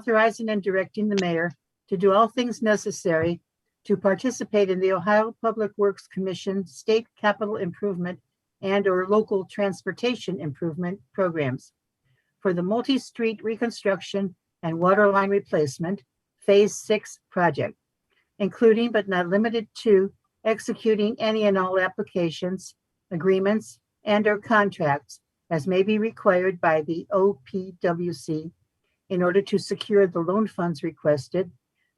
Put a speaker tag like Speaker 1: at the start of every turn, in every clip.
Speaker 1: authorizing and directing the mayor to do all things necessary to participate in the Ohio Public Works Commission State Capital Improvement and/or local transportation improvement programs for the multi-street reconstruction and water line replacement Phase Six project, including but not limited to executing any and all applications, agreements, and/or contracts as may be required by the OPWC in order to secure the loan funds requested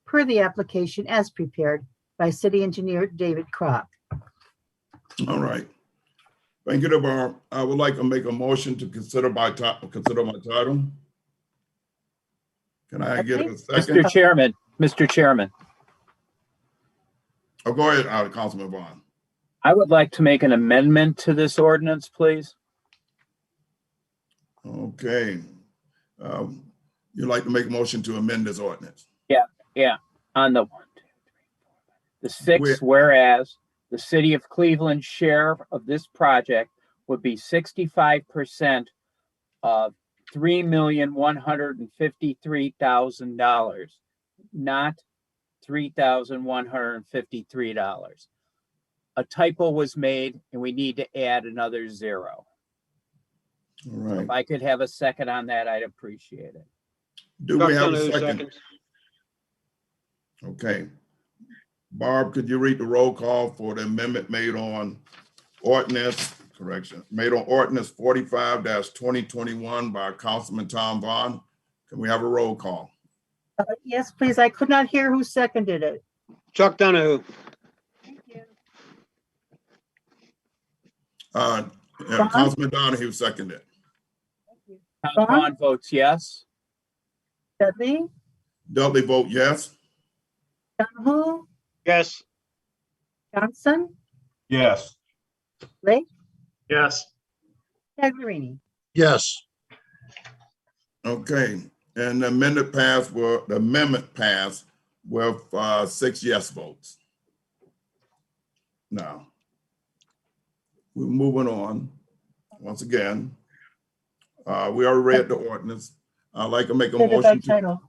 Speaker 1: per the application as prepared by City Engineer David Crock.
Speaker 2: All right. Thank you, Deborah. I would like to make a motion to consider by title, consider my title. Can I get a second?
Speaker 3: Mr. Chairman, Mr. Chairman,
Speaker 2: Oh, go ahead, uh, Councilman Vaughn.
Speaker 3: I would like to make an amendment to this ordinance, please.
Speaker 2: Okay. Um, You'd like to make a motion to amend this ordinance?
Speaker 3: On the one, two, three, four, the six, whereas the city of Cleveland share of this project would be sixty-five percent of three million, one hundred and fifty-three thousand dollars, not three thousand, one hundred and fifty-three dollars. A typo was made and we need to add another zero.
Speaker 2: All right.
Speaker 3: If I could have a second on that, I'd appreciate it.
Speaker 2: Do we have a
Speaker 4: Duncan,
Speaker 2: second? Okay. Barb, could you read the roll call for the amendment made on ordinance, correction, made on ordinance forty-five twenty twenty-one by Councilman Tom Vaughn? Can we have a roll call?
Speaker 1: Uh, Yes, please. I could not hear who seconded it.
Speaker 4: Chuck Donahue,
Speaker 1: Thank you.
Speaker 2: Uh, yeah,
Speaker 1: Vaughn?
Speaker 2: Councilman Donahue seconded.
Speaker 3: Tom
Speaker 1: Vaughn?
Speaker 3: Vaughn votes yes.
Speaker 1: Dudley,
Speaker 2: Dudley vote yes.
Speaker 1: Donahue,
Speaker 4: yes.
Speaker 1: Johnson,
Speaker 5: Yes.
Speaker 1: Lake,
Speaker 4: Yes.
Speaker 1: Taglerini.
Speaker 5: Yes.
Speaker 2: Okay, and the amendment passed were, the amendment passed with, uh, six yes votes. Now, we're moving on, once again. Uh, we already read the ordinance. I'd like to make a
Speaker 1: Consider by
Speaker 2: motion to,
Speaker 1: title.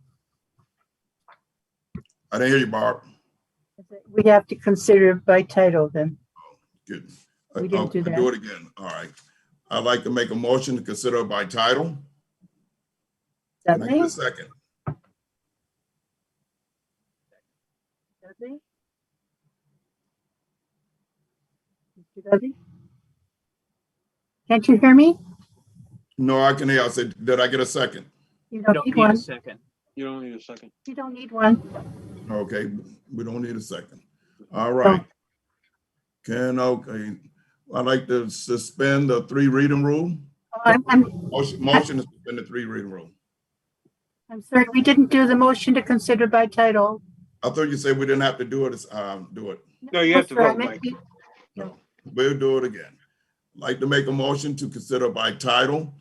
Speaker 2: I didn't hear you, Barb.
Speaker 1: We have to consider it by title then.
Speaker 2: Good.
Speaker 1: We didn't
Speaker 2: I'll-
Speaker 1: do
Speaker 2: I'll
Speaker 1: that.
Speaker 2: Do it again, all right. I'd like to make a motion to consider by title. Can I get
Speaker 1: Dudley,
Speaker 2: a second?
Speaker 1: Dudley? Mr. Dudley? Can't you hear me?
Speaker 2: No, I can hear, I said, did I get a second?
Speaker 1: You
Speaker 3: You
Speaker 1: don't
Speaker 3: Don't
Speaker 1: need
Speaker 3: need a
Speaker 1: one.
Speaker 3: second.
Speaker 4: You don't need a second.
Speaker 1: You don't need one.
Speaker 2: Okay, we don't need a second. All right. Can, okay, I'd like to suspend the three reading rule.
Speaker 1: Oh, I'm, I'm,
Speaker 2: Motion, motion to suspend the three reading rule.
Speaker 1: I'm sorry, we didn't do the motion to consider by title.
Speaker 2: I thought you said we didn't have to do it, um, do it.
Speaker 4: No, you
Speaker 1: I'm
Speaker 4: have to
Speaker 1: sorry, I
Speaker 4: vote,
Speaker 1: meant
Speaker 4: Mike.
Speaker 1: we-
Speaker 2: No, we'll do it again. Like to make a motion to consider by title.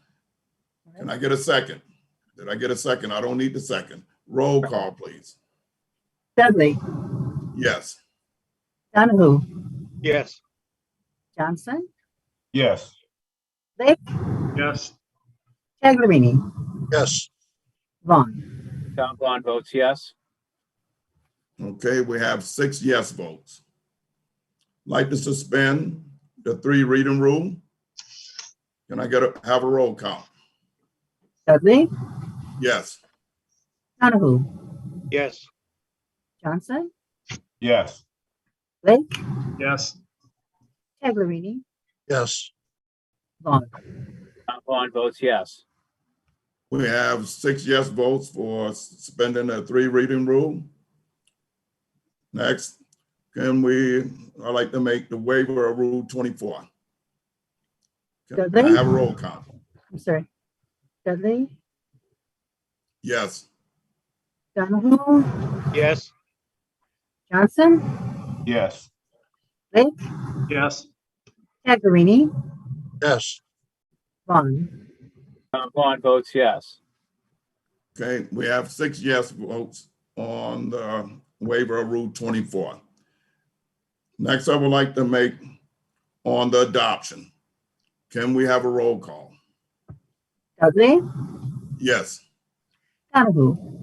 Speaker 2: Can I get a second? Did I get a second? I don't need the second. Roll call, please.
Speaker 1: Dudley,
Speaker 2: Yes.
Speaker 1: Donahue,
Speaker 4: Yes.
Speaker 1: Johnson,
Speaker 5: Yes.
Speaker 4: Yes.
Speaker 1: Taglerini,
Speaker 5: Yes.
Speaker 1: Vaughn.
Speaker 3: Tom Vaughn votes yes.
Speaker 2: Okay, we have six yes votes. Like to suspend the three reading rule? Can I get a, have a roll call?
Speaker 1: Dudley,
Speaker 2: Yes,
Speaker 1: Donahue,
Speaker 4: Yes.
Speaker 1: Johnson,
Speaker 5: Yes.
Speaker 1: Lake,
Speaker 4: Yes.
Speaker 1: Taglerini,
Speaker 5: Yes.
Speaker 1: Vaughn.
Speaker 3: Tom Vaughn votes yes.
Speaker 2: we have six yes votes for suspending the three reading rule. Next, can we, I'd like to make the waiver of Rule twenty-four. Can I have a roll call?
Speaker 1: I'm sorry. Dudley,
Speaker 2: Yes,
Speaker 1: Donahue,
Speaker 4: Yes.
Speaker 1: Johnson,
Speaker 5: Yes.
Speaker 1: Lake,
Speaker 4: Yes.
Speaker 1: Taglerini,
Speaker 5: Yes.
Speaker 1: Vaughn.
Speaker 3: Tom Vaughn votes yes.
Speaker 2: okay, we have six yes votes on the waiver of Rule twenty-four. Next, I would like to make on the adoption. Can we have a roll call?
Speaker 1: Dudley,
Speaker 2: Yes,
Speaker 1: Donahue,